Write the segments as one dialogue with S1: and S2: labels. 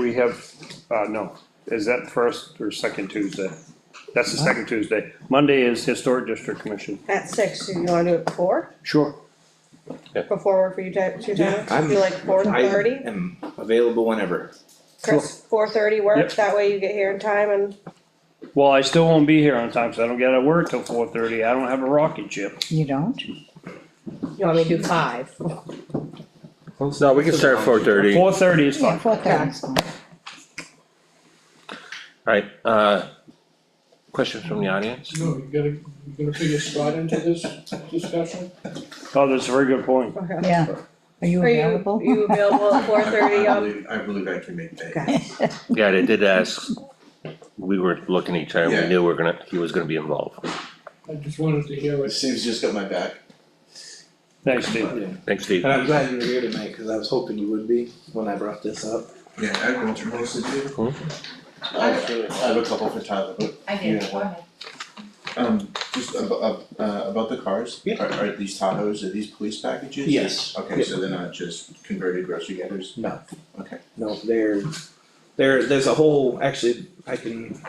S1: We have, uh, no, is that first or second Tuesday? That's the second Tuesday. Monday is Historic District Commission.
S2: At six, do you wanna do it four,
S1: Sure.
S2: before work for you type, two times,
S3: I'm-
S2: do like four
S3: I
S2: thirty?
S3: am available whenever.
S2: Chris, four thirty
S1: Yep.
S2: works, that way you get here in time and,
S1: Well, I still won't be here on time, so I don't get out of work till four thirty. I don't have a rocket ship.
S4: You don't?
S2: you want me to do five?
S5: No, we can start at four thirty,
S1: Four thirty is
S4: Yeah,
S1: fine.
S4: four thirty's fine.
S5: alright, uh, questions from the audience?
S6: No, you gotta, you gotta figure Scott into this discussion?
S1: Oh, that's a very good point.
S2: Okay.
S4: Yeah, are you
S2: Are you,
S4: available?
S2: you available at four thirty um,
S3: I
S2: on,
S3: believe, I believe I can make that.
S4: Okay.
S5: Yeah, they did ask, we were looking at each other, we
S3: Yeah.
S5: knew we're gonna, he was gonna be involved,
S6: I just wanted to hear what
S3: Steve's just got my back.
S1: Thanks, Steve.
S5: thanks Steve.
S7: And I'm glad you were here tonight, cause I was hoping you would be when I brought this up.
S3: Yeah, I've been through most of it.
S5: Hmm.
S3: I have, I have a couple for Tyler, but
S8: I did,
S3: Yeah.
S8: go ahead.
S3: um just about uh about the cars.
S7: Yeah.
S3: Are are these Tahoes, are these police packages?
S7: Yes.
S3: Okay, so they're not just converted grocery getters?
S7: No.
S3: Okay.
S7: No, there, there, there's a whole, actually, I can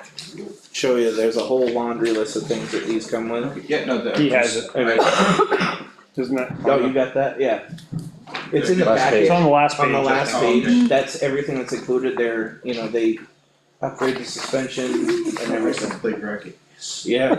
S7: show you, there's a whole laundry list of things that these come with.
S3: Okay, yeah, no, the.
S1: He has it.
S3: I-
S1: Isn't it?
S7: Oh, you got that? Yeah. It's in the
S5: Last page.
S7: packet,
S1: It's on the last page.
S7: on the
S1: I
S7: last
S1: think.
S7: page, that's everything that's included there, you know, they upgrade the suspension and
S3: I never said
S7: everything.
S3: play bracket.
S7: Yeah,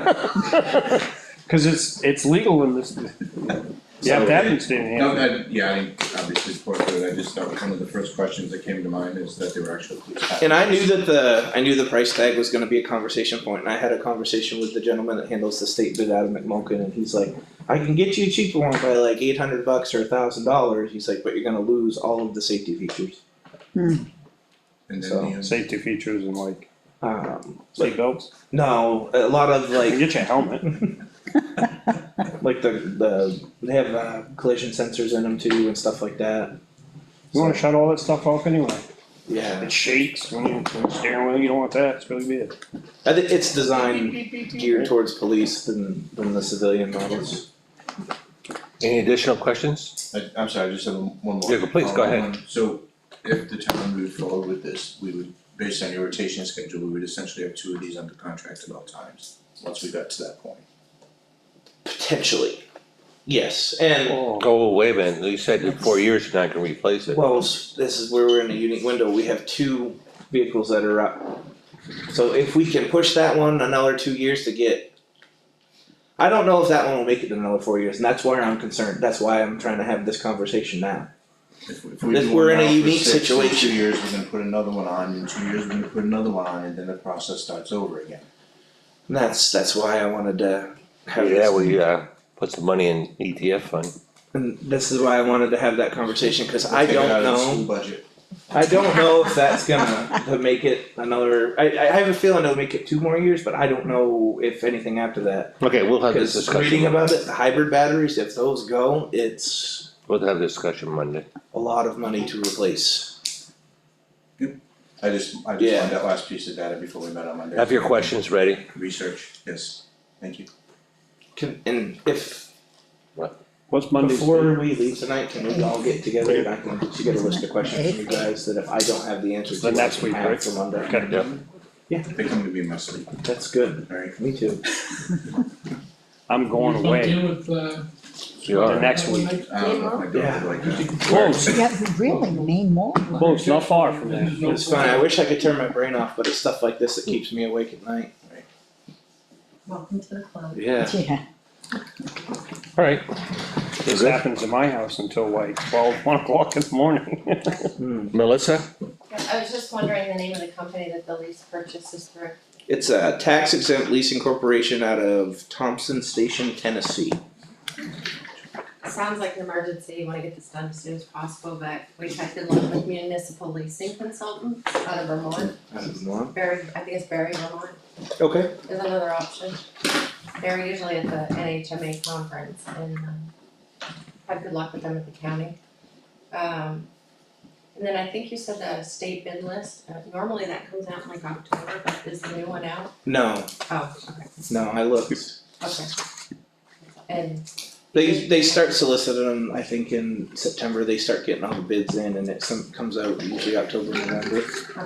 S1: Cause it's, it's legal in this. You have to have it, Steve.
S3: No,
S1: yeah.
S3: that, yeah, I obviously support that, I just, that was one of the first questions that came to mind is that they were actual police packages.
S7: And I knew that the, I knew the price tag was gonna be a conversation point, and I had a conversation with the gentleman that handles the state bid out of McMokin, and he's like, I can get you a cheaper one by like eight hundred bucks or a thousand dollars, he's like, but you're gonna lose all of the safety features.
S3: And
S7: So-
S3: then the, um,
S1: Safety features and like
S7: Um, like,
S1: seatbelts.
S7: no, a lot of
S1: You
S7: like,
S1: get your helmet.
S7: like the, the, they have uh, collision sensors in them too and stuff like that.
S1: You wanna
S7: So,
S1: shut all that stuff off anyway.
S7: Yeah,
S1: It shakes when you, when you steering wheel, you don't want that, it's really bad.
S7: I think it's designed geared towards police than, than the civilian models.
S5: Any additional questions?
S3: I, I'm sorry, I just have one more.
S5: Yeah, go- please, go ahead.
S3: Um, So if the town moved forward with this, we would, based on your rotation schedule, we would essentially have two of these under contract at all times, once we got to that point.
S7: Potentially, yes, and
S1: Oh,
S5: Go away, man, you said in four years you're not gonna replace it.
S7: Well, s- this is where we're in a unique window, we have two vehicles that are up. So if we can push that one another two years to get. I don't know if that one will make it another four years, and that's why I'm concerned, that's why I'm trying to have this conversation now.
S3: If we, if we
S7: This-
S3: do one
S7: we're in a
S3: now for
S7: unique
S3: six, in
S7: situation.
S3: two years, we're gonna put another one on, in two years, we're gonna put another one on, and then the process starts over again.
S7: And that's, that's why I wanted to have
S5: Yeah,
S7: this,
S5: we, uh, put some money in ETF fund,
S7: and this is why I wanted to have that conversation, cause I
S3: Take it
S7: don't
S3: out of the
S7: know.
S3: school budget.
S7: I don't know if that's gonna to make it another, I, I have a feeling it'll make it two more years, but I don't know if anything after that.
S5: okay, we'll have this
S7: Because reading
S5: discussion,
S7: about it, the hybrid batteries, if those go, it's
S5: we'll have this discussion Monday.
S7: a lot of money to replace.
S3: I just, I just
S7: Yeah.
S3: wanted that last piece of data before we met on Monday.
S5: Have your questions ready,
S3: Research, yes, thank you.
S7: Can, and if,
S1: What's Monday's?
S7: before we leave tonight, can we all get together and I can, she got a list of questions from you guys that if I don't have the answers to,
S1: The
S7: I
S1: next
S7: can
S1: week,
S7: have
S1: right?
S7: for Monday.
S1: Okay.
S3: They come to me in my sleep,
S7: That's good,
S3: alright?
S7: me too.
S1: I'm going away
S6: Deal with, uh.
S5: you
S1: the
S5: are,
S1: next week.
S3: I don't know if Um, my daughter would like uh, that.
S1: Close,
S4: Yeah, really, name more.
S1: close, Oh, not far from there.
S7: It's fine, I wish I could turn my brain off, but it's stuff like this that keeps me awake at night.
S8: Welcome to the club.
S7: Yeah.
S4: Yeah,
S5: alright.
S1: This happens in my house until like twelve, one o'clock in the morning.
S5: Melissa?
S8: Yeah, I was just wondering the name of the company that the lease purchase is through.
S7: It's a tax exempt leasing corporation out of Thompson Station, Tennessee.
S8: Sounds like an emergency, you wanna get this done as soon as possible, but we checked in with municipal leasing consultant out of Vermont.
S7: Out of Vermont.
S8: Barry, I think it's Barry Vermont
S7: Okay.
S8: is another option. They're usually at the NHMA conference and um, had good luck with them at the county. Um, and then I think you said the state bid list, uh, normally that comes out in like October, but is the new one out?
S7: No,
S8: Oh, okay,
S7: no, I looked.
S8: okay. And,
S7: They they start soliciting them. I think in September they start getting all the bids in, and it some comes out usually October November.